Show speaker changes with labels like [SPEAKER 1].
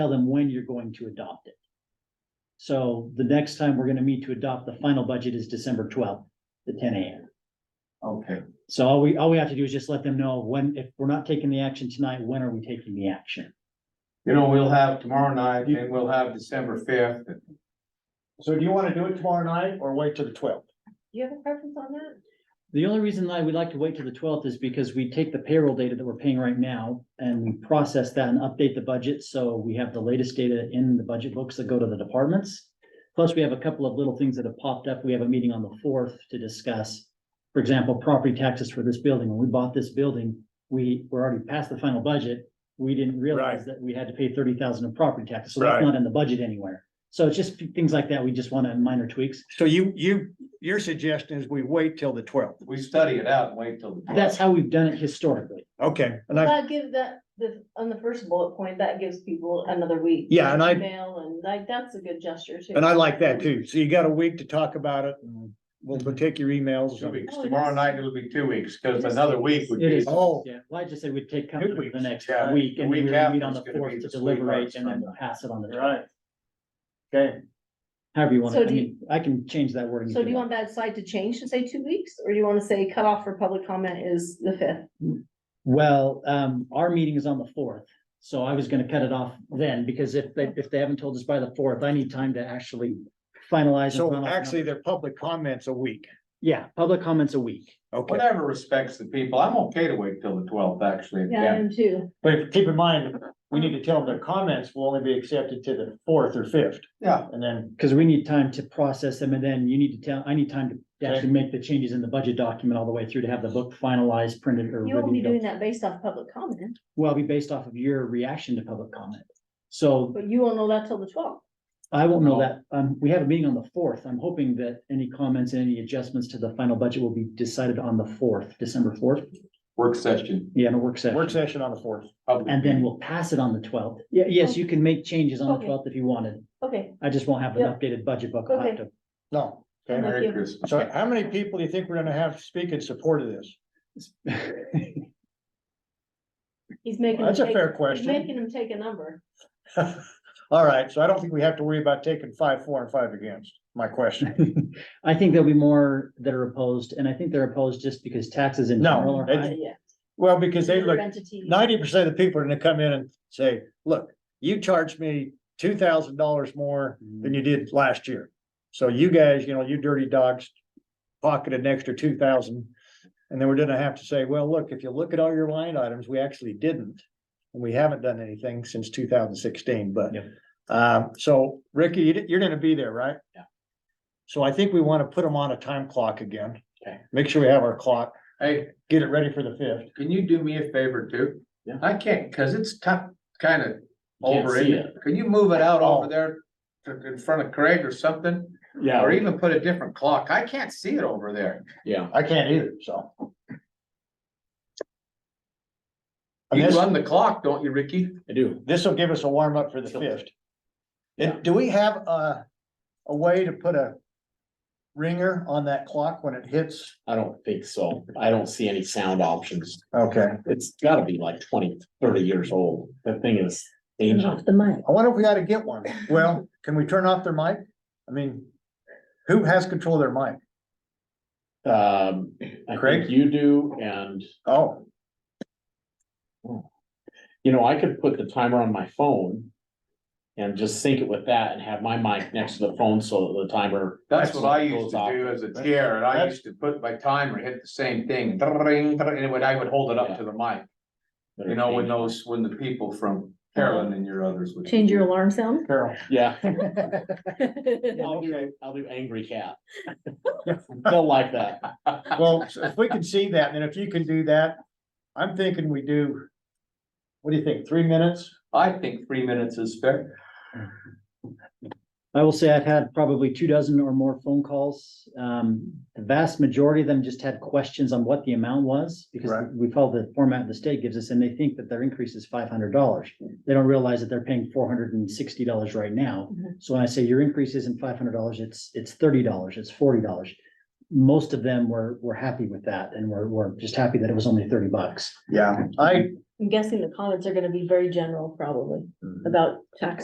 [SPEAKER 1] tell them when you're going to adopt it. So the next time we're gonna meet to adopt the final budget is December twelfth, at ten AM.
[SPEAKER 2] Okay,
[SPEAKER 1] So all we, all we have to do is just let them know when, if we're not taking the action tonight, when are we taking the action?
[SPEAKER 2] you know, we'll have tomorrow night and we'll have December fifth.
[SPEAKER 3] So do you wanna do it tomorrow night or wait till the twelfth?
[SPEAKER 4] Do you have a preference on that?
[SPEAKER 1] The only reason I would like to wait till the twelfth is because we take the payroll data that we're paying right now and we process that and update the budget, so we have the latest data in the budget books that go to the departments. Plus, we have a couple of little things that have popped up. We have a meeting on the fourth to discuss. For example, property taxes for this building. When we bought this building, we were already past the final budget. We didn't realize that we had to pay thirty thousand in property taxes, so that's
[SPEAKER 5] Right.
[SPEAKER 1] not in the budget anywhere. So it's just things like that. We just want to minor tweaks.
[SPEAKER 5] So you, you, your suggestion is we wait till the twelfth.
[SPEAKER 2] We study it out and wait till the. 12th.
[SPEAKER 1] That's how we've done it historically.
[SPEAKER 5] Okay, and I,
[SPEAKER 4] That gives that, the, on the first bullet point, that gives people another week.
[SPEAKER 5] Yeah, and I-
[SPEAKER 4] Email and like, that's a good gesture too.
[SPEAKER 5] and I like that too. So you got a week to talk about it and we'll we'll take your emails.
[SPEAKER 2] Two weeks,
[SPEAKER 4] Oh, it
[SPEAKER 2] tomorrow
[SPEAKER 4] is.
[SPEAKER 2] night it'll be two weeks, cause another week would
[SPEAKER 1] It
[SPEAKER 2] be.
[SPEAKER 1] is,
[SPEAKER 5] Oh.
[SPEAKER 1] yeah, well, I just said we'd take
[SPEAKER 5] Two
[SPEAKER 1] comfort for
[SPEAKER 5] weeks,
[SPEAKER 1] the next
[SPEAKER 2] yeah.
[SPEAKER 1] week
[SPEAKER 2] The
[SPEAKER 1] and we
[SPEAKER 2] week
[SPEAKER 1] would meet
[SPEAKER 2] after
[SPEAKER 1] on
[SPEAKER 2] is
[SPEAKER 1] the
[SPEAKER 2] gonna be
[SPEAKER 1] fourth
[SPEAKER 2] the
[SPEAKER 1] to
[SPEAKER 2] sweetheart
[SPEAKER 1] deliberate and then
[SPEAKER 2] Sunday.
[SPEAKER 1] pass it on the,
[SPEAKER 3] Right. Okay,
[SPEAKER 1] however you want
[SPEAKER 4] So
[SPEAKER 1] to, I
[SPEAKER 4] do you-
[SPEAKER 1] mean, I can change that wording.
[SPEAKER 4] So
[SPEAKER 1] if
[SPEAKER 4] do you want that slide to change to say two weeks, or do you wanna say cutoff for public comment is the fifth?
[SPEAKER 1] Well, um, our meeting is on the fourth, so I was gonna cut it off then, because if they, if they haven't told us by the fourth, I need time to actually finalize. and
[SPEAKER 5] So
[SPEAKER 1] finalize
[SPEAKER 5] actually,
[SPEAKER 1] numbers.
[SPEAKER 5] their public comments a week.
[SPEAKER 1] Yeah, public comments a week.
[SPEAKER 5] Okay,
[SPEAKER 2] Whatever respects the people, I'm okay to wait till the twelfth, actually.
[SPEAKER 4] Yeah, I am too.
[SPEAKER 3] but keep in mind, we need to tell them the comments will only be accepted to the fourth or fifth,
[SPEAKER 2] Yeah,
[SPEAKER 3] and then,
[SPEAKER 1] Cause we need time to process them and then you need to tell, I need time to
[SPEAKER 3] Okay.
[SPEAKER 1] actually make the changes in the budget document all the way through to have the book finalized, printed or.
[SPEAKER 4] You won't
[SPEAKER 1] ready
[SPEAKER 4] be
[SPEAKER 1] to go.
[SPEAKER 4] doing that based off public comment,
[SPEAKER 1] Well, it'll be based off of your reaction to public comment. So
[SPEAKER 4] but you won't know that till the twelfth.
[SPEAKER 1] I won't know
[SPEAKER 2] No.
[SPEAKER 1] that, um, we have a meeting on the fourth. I'm hoping that any comments and any adjustments to the final budget will be decided on the fourth, December fourth.
[SPEAKER 2] work session.
[SPEAKER 1] Yeah, in a work
[SPEAKER 3] work
[SPEAKER 1] session.
[SPEAKER 3] session on the fourth.
[SPEAKER 2] public
[SPEAKER 1] And then
[SPEAKER 2] meeting.
[SPEAKER 1] we'll pass it on the twelfth. Yeah, yes, you can make changes on the
[SPEAKER 4] Okay.
[SPEAKER 1] twelfth if you wanted.
[SPEAKER 4] Okay,
[SPEAKER 1] I just won't have an
[SPEAKER 4] Yeah.
[SPEAKER 1] updated budget book. I'll have to-
[SPEAKER 3] No,
[SPEAKER 4] I'm
[SPEAKER 3] okay,
[SPEAKER 4] with
[SPEAKER 2] Merry
[SPEAKER 4] you.
[SPEAKER 2] Christmas.
[SPEAKER 3] so how many people do you think we're gonna have speak in support of this?
[SPEAKER 4] He's making.
[SPEAKER 3] That's a
[SPEAKER 4] them take-
[SPEAKER 3] fair
[SPEAKER 4] he's
[SPEAKER 3] question.
[SPEAKER 4] Making him take a number.
[SPEAKER 3] All right, so I don't think we have to worry about taking five, four and five against, my question.
[SPEAKER 1] I think there'll be more that are opposed, and I think they're opposed just because taxes in
[SPEAKER 3] No,
[SPEAKER 1] general are
[SPEAKER 3] that's-
[SPEAKER 1] high.
[SPEAKER 4] Yeah.
[SPEAKER 3] Well, because they look,
[SPEAKER 4] Entity.
[SPEAKER 3] ninety percent of the people are gonna come in and say, look, you charged me two thousand dollars more than you did last year. So you guys, you know, you dirty dogs pocketed an extra two thousand. And then we're gonna have to say, well, look, if you look at all your line items, we actually didn't. And we haven't done anything since two thousand sixteen, but.
[SPEAKER 1] Yep.
[SPEAKER 3] Um, so Ricky, you- you're gonna be there, right?
[SPEAKER 1] Yeah.
[SPEAKER 3] So I think we wanna put them on a time clock again.
[SPEAKER 2] Okay.
[SPEAKER 3] Make sure we have our clock,
[SPEAKER 2] Hey,
[SPEAKER 3] get it ready for the fifth.
[SPEAKER 2] can you do me a favor too?
[SPEAKER 1] Yeah.
[SPEAKER 2] I can't, cause it's tough, kinda
[SPEAKER 1] can't
[SPEAKER 2] over
[SPEAKER 1] see
[SPEAKER 2] it. Can you move it out
[SPEAKER 3] Oh.
[SPEAKER 2] over there to- in front of Craig or something?
[SPEAKER 3] Yeah.
[SPEAKER 2] Or even put a different clock. I can't see it over there. Yeah.
[SPEAKER 3] I can't either, so. And
[SPEAKER 2] You
[SPEAKER 3] this,
[SPEAKER 2] run the clock, don't you, Ricky?
[SPEAKER 6] I do.
[SPEAKER 3] this will give us a warm up for the fifth. And do we have a, a way to put a ringer on that clock when it hits?
[SPEAKER 6] I don't think so. I don't see any sound options.
[SPEAKER 3] Okay,
[SPEAKER 6] It's gotta be like 20, 30 years old. That thing is ancient.
[SPEAKER 4] the mic.
[SPEAKER 3] I wonder if we ought to get one. Well, can we turn off their mic? I mean, who has control of their mic?
[SPEAKER 6] Um, I
[SPEAKER 3] Craig?
[SPEAKER 6] think you do, and
[SPEAKER 3] Oh,
[SPEAKER 6] you know, I could put the timer on my phone. And just sync it with that and have my mic next to the phone so that the timer.
[SPEAKER 2] That's what I
[SPEAKER 6] goes
[SPEAKER 2] used to
[SPEAKER 6] off.
[SPEAKER 2] do as a chair, and I
[SPEAKER 3] That's-
[SPEAKER 2] used to put my timer, hit the same thing, dring, dring, and when I would hold it up to the mic. You know, when those, when the people from Carolyn and your others would.
[SPEAKER 4] Change your alarm sound?
[SPEAKER 3] Carol.
[SPEAKER 6] Yeah,
[SPEAKER 4] Well,
[SPEAKER 6] I'll do, I'll do angry cat. They'll like that.
[SPEAKER 3] Well, so if we can see that, and if you can do that, I'm thinking we do, what do you think, three minutes?
[SPEAKER 2] I think three minutes is fair.
[SPEAKER 1] I will say I've had probably two dozen or more phone calls. Um, the vast majority of them just had questions on what the amount was. Because
[SPEAKER 3] Right.
[SPEAKER 1] we follow the format the state gives us and they think that their increase is five hundred dollars. They don't realize that they're paying four hundred and sixty dollars right now.
[SPEAKER 4] Mhm.
[SPEAKER 1] So when I say your increase isn't five hundred dollars, it's, it's thirty dollars, it's forty dollars. most of them were, were happy with that and were, were just happy that it was only thirty bucks.
[SPEAKER 3] Yeah, I,
[SPEAKER 4] I'm guessing the comments are gonna be very general, probably, about tax